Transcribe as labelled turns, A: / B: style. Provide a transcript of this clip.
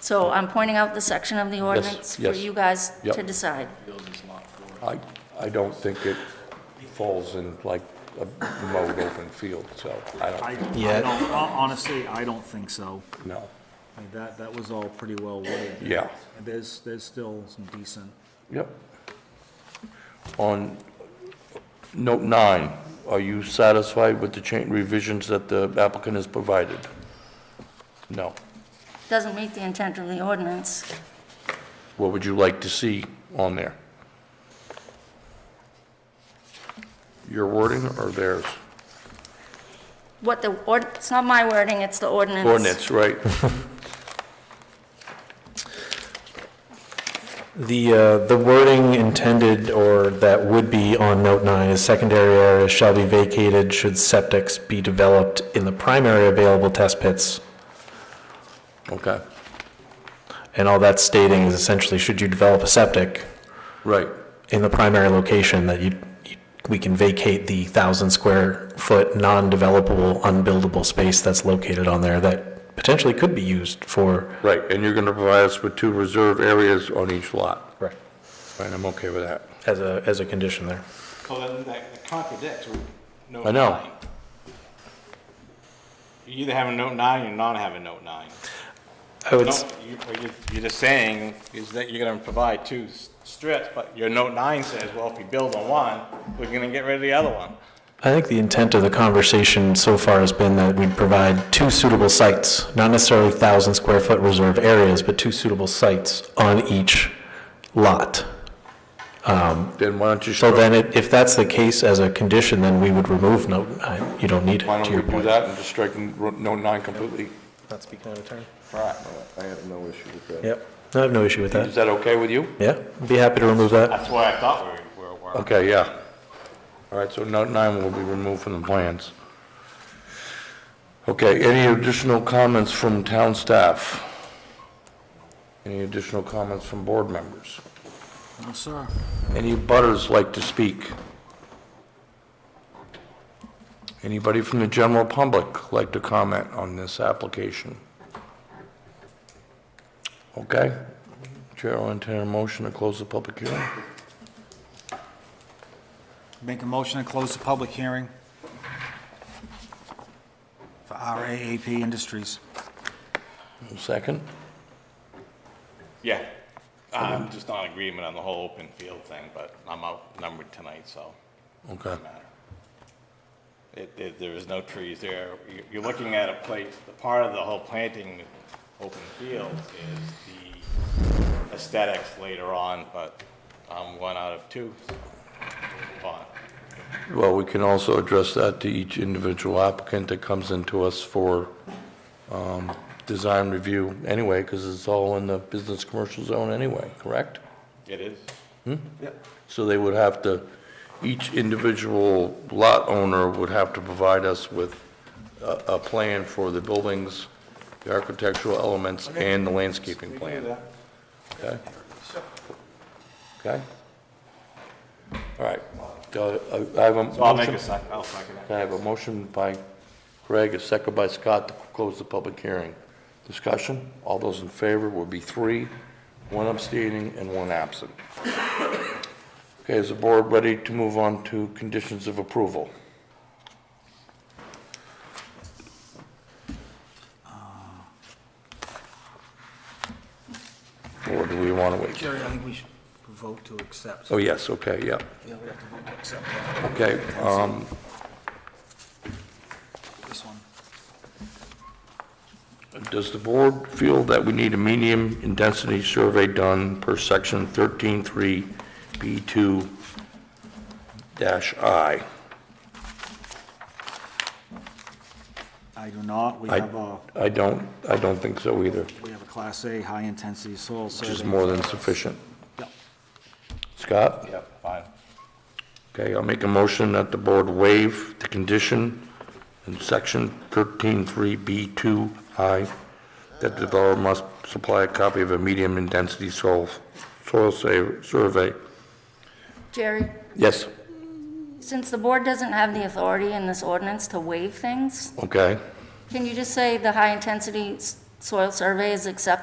A: So I'm pointing out the section of the ordinance for
B: yes.
A: you guys
B: Yep.
A: to decide.
B: I, I don't think it falls in like a mowed open field, so I
C: I, I
B: don't,
D: Yeah.
C: don't, hon- honestly, I don't think so.
B: no.
C: I mean, That, that was all pretty well weighed.
B: Yeah.
C: There's, there's still some decent,
B: Yep. On note nine, are you satisfied with the change revisions that the applicant has provided? No.
A: Doesn't meet the intent of the ordinance.
B: What would you like to see on there? Your wording or theirs?
A: What the, ord- it's not my wording, it's the ordinance.
B: Ordinance, right.
D: The, uh, the wording intended or that would be on note nine is secondary areas shall be vacated should septics be developed in the primary available test pits.
B: Okay,
D: And all that's stating is essentially, should you develop a septic
B: right.
D: in the primary location that you, you- we can vacate the thousand square foot non-developable, unbuildable space that's located on there that potentially could be used for.
B: Right, and you're going to provide us with two reserve areas on each lot.
D: Correct.
B: Right, I'm okay with that.
D: As a, as a condition there.
E: Well, then that contradicts with note
B: I know.
E: nine. You either have a note nine or not have a note nine.
D: I would,
E: No,
D: s-
E: you- what you're- You're just saying is that you're gonna provide two s- strips, but your note nine says, well, if we build on one, we're gonna get rid of the other one.
D: I think the intent of the conversation so far has been that we'd provide two suitable sites, not necessarily thousand square foot reserve areas, but two suitable sites on each lot.
B: Then why don't you
D: So
B: start,
D: then, it- if that's the case as a condition, then we would remove note, nine. you don't need
B: why
D: it, to
B: don't
D: your
B: we do
D: point.
B: that and just strike n- ro- note nine completely?
D: Not speaking out of turn.
F: I have no issue with that.
D: Yep, I have no issue with
B: Is
D: that.
B: that okay with you?
D: Yeah, I'd be happy to remove that.
E: That's why I thought we were, were.
B: Okay, yeah. All right, so note nine will be removed from the plans. Okay, any additional comments from town staff? Any additional comments from board members?
C: no, sir.
B: Any butters like to speak? Anybody from the general public like to comment on this application? Okay. Chair will entertain a motion to close the public hearing.
C: Make a motion to close the public hearing for RAAP Industries.
B: Second?
E: Yeah, I'm just not in agreement on the whole open field thing, but I'm outnumbered tonight, so.
B: Okay.
E: matter. It, it, there is no trees there. You- You're looking at a place, the part of the whole planting open field is the aesthetics later on, but I'm one out of two. so we'll move on.
B: Well, we can also address that to each individual applicant that comes into us for um, design review anyway, because it's all in the business commercial zone anyway, correct?
E: It is.
B: So they would have to, each individual lot owner would have to provide us with a, a plan for the buildings, the architectural elements, and the landscaping plan. Okay? Okay? All right. Uh, I I have a
E: So I'll make a
B: motion-
E: sec, I'll second it.
B: I have a motion by Craig, a second by Scott to close the public hearing. Discussion, all those in favor will be three, one abstaining and one absent. Okay, is the board ready to move on to conditions of approval? Or do we want to wait?
C: Jerry, I think we should vote to accept.
B: Oh, yes, okay, yeah.
C: Yeah, we have to vote to accept that.
B: Okay, um,
C: this one.
B: Does the board feel that we need a medium intensity survey done per section 133B2-I? dash I?
C: I do not. We
B: I-
C: have uh, a,
B: I don't, I don't think so either,
C: we have a Class A high-intensity soil survey.
B: which is more than sufficient.
C: Yep.
B: Scott?
E: Yep, fine.
B: Okay, I'll make a motion that the board waive the condition in section 133B2I that the developer must supply a copy of a medium intensity soil, soil sa- survey.
A: Jerry,
B: Yes,
A: since the board doesn't have the authority in this ordinance to waive things,
B: okay.
A: can you just say the high-intensity s- soil survey is acceptable